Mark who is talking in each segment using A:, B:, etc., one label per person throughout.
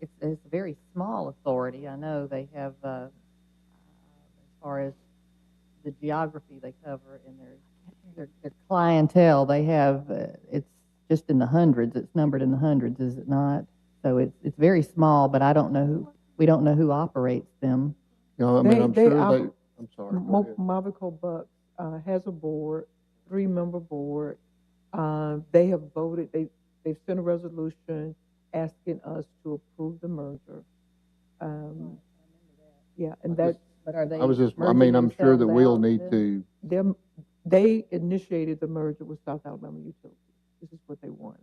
A: is a very small authority. I know they have, uh, uh, as far as the geography they cover and their, their, their clientele, they have, uh, it's just in the hundreds, it's numbered in the hundreds, is it not? So it's, it's very small, but I don't know, who we don't know who operates them.
B: You know, I mean,
C: They-
B: I'm
C: they
B: sure they,
C: are-
B: I'm sorry, go
C: Mo-
B: ahead.
C: Mavico Bucks uh, has a board, three-member board. Uh, They have voted, they, they've sent a resolution asking us to approve the merger. Um, Yeah, and
B: I
C: that,
B: just-
A: But are they?
B: I was just, I
A: merging
B: mean, I'm sure that
A: themselves out
B: we'll
A: of
B: need
A: this?
B: to,
C: them, they initiated the merger with South Alabama Utilities. This is what they wanted.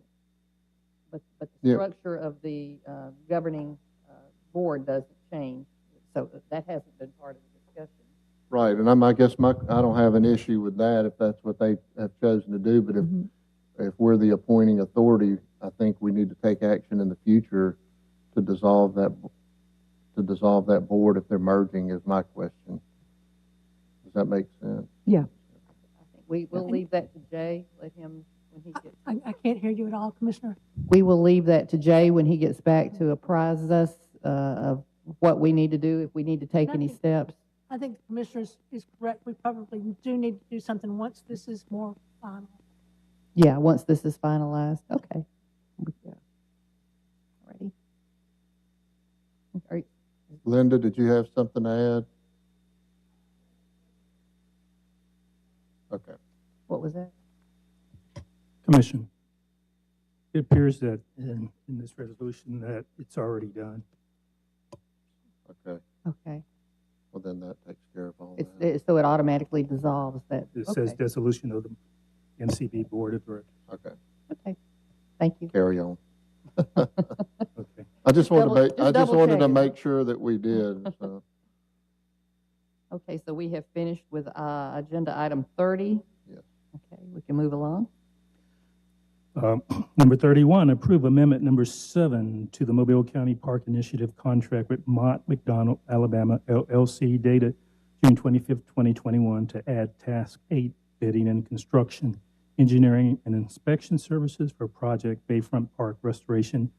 A: But, but the
B: Yeah.
A: structure of the uh, governing uh, board doesn't change, so that hasn't been part of the discussion.
B: right, and I'm, I guess my, I don't have an issue with that if that's what they have chosen to do, but if,
C: Mhm.
B: if we're the appointing authority, I think we need to take action in the future to dissolve that, to dissolve that board if they're merging is my question. Does that make sense?
A: I think We, we'll leave that to Jay, let him, when he gets,
D: I, I can't hear you at all, Commissioner.
A: we will leave that to Jay when he gets back to apprise us uh, of what we need to do, if we need to take any
D: Nothing.
A: steps.
D: I think the Commissioner is- is correct. We probably do need to do something once this is more um, final.
A: Yeah, once this is finalized, okay.
C: Yeah.
A: Alrighty. Are-
B: Linda, did you have something to add? Okay.
A: What was that?
E: Commission. It appears that in, in this resolution that it's already done.
B: Okay,
A: Okay,
B: well, then that takes care of all
A: it's,
B: that.
A: it- so it automatically dissolves that,
E: It says
A: okay,
E: dissolution of the MCB Board of Directors.
B: Okay,
A: okay, thank you.
B: carry on.
E: Okay.
B: I just wanted
A: Double-
B: to make, I
A: just
B: just wanted to
A: double-checking.
B: make sure that we did, so.
A: Okay, so we have finished with uh, agenda item 30?
B: Yes.
A: Okay, we can move along.
E: Um, Number 31, approve amendment number seven to the Mobile County Park Initiative contract with Mott McDonald Alabama LLC dated June 25th, 2021 to add task eight bidding and construction, engineering and inspection services for project Bayfront Park restoration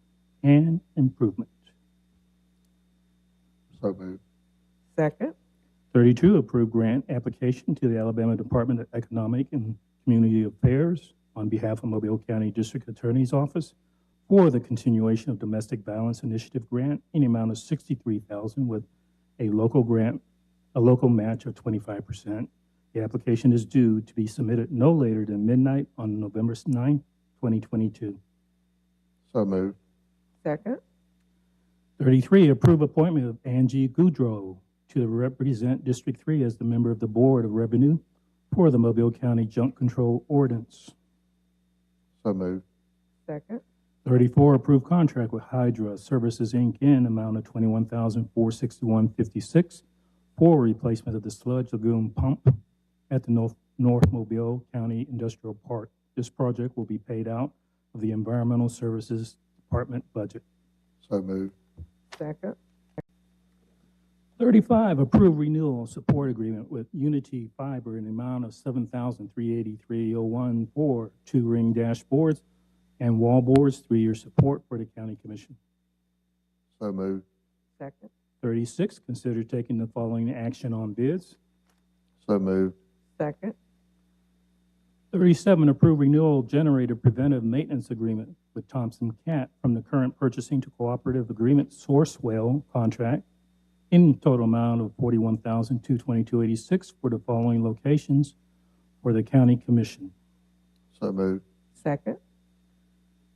E: and improvement.
B: So moved.
C: Second,
E: 32, approve grant application to the Alabama Department of Economic and Community Affairs on behalf of Mobile County District Attorney's Office for the continuation of Domestic Violence Initiative Grant in the amount of 63000 with a local grant, a local match of 25%. The application is due to be submitted no later than midnight on November 9, 2022.
B: So moved.
C: second,
E: 33, approve appointment of Angie Goudreau to represent District 3 as the member of the Board of Revenue for the Mobile County Junk Control Ordinance.
B: So moved.
C: second,
E: 34, approve contract with Hydra Services, Inc. in amount of $21,461.56 for replacement of the sludge lagoon pump at the North North Mobile County Industrial Park. This project will be paid out of the Environmental Services Department budget.
B: So moved.
C: second,
E: 35, approve renewal support agreement with Unity Fiber in the amount of 738301 for oh two ring dashboards and wall boards, three-year support for the county commission.
B: So moved.
C: second,
E: 36, consider taking the following action on bids.
B: So moved.
C: second,
E: 37, approve renewal generator preventive maintenance agreement with Thompson Cat from the current purchasing to cooperative agreement Sourcewell contract in total amount of 41222 for the following locations for the county commission.
B: So moved.
C: second,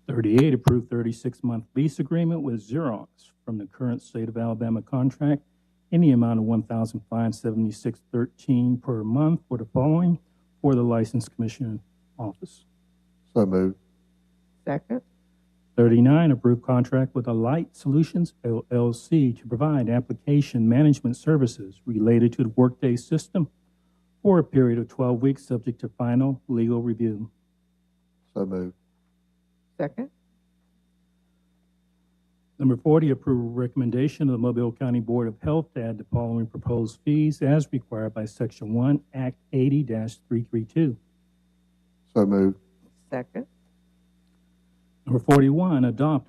E: 38, approve 36-month lease agreement with Xerox from the current state of Alabama contract in the amount of $1,576.13 per month for the following for the License Commission Office.
B: So moved.
C: second,
E: 39, approve contract with Alight Solutions LLC to provide application management services related to the Workday system for a period of 12 weeks, subject to final legal review.
B: So moved.
C: second,
E: Number 40, approve recommendation of the Mobile County Board of Health to add the following proposed fees as required by Section 1, Act 80-332.
B: So moved.
C: second.
E: Number 41, adopt a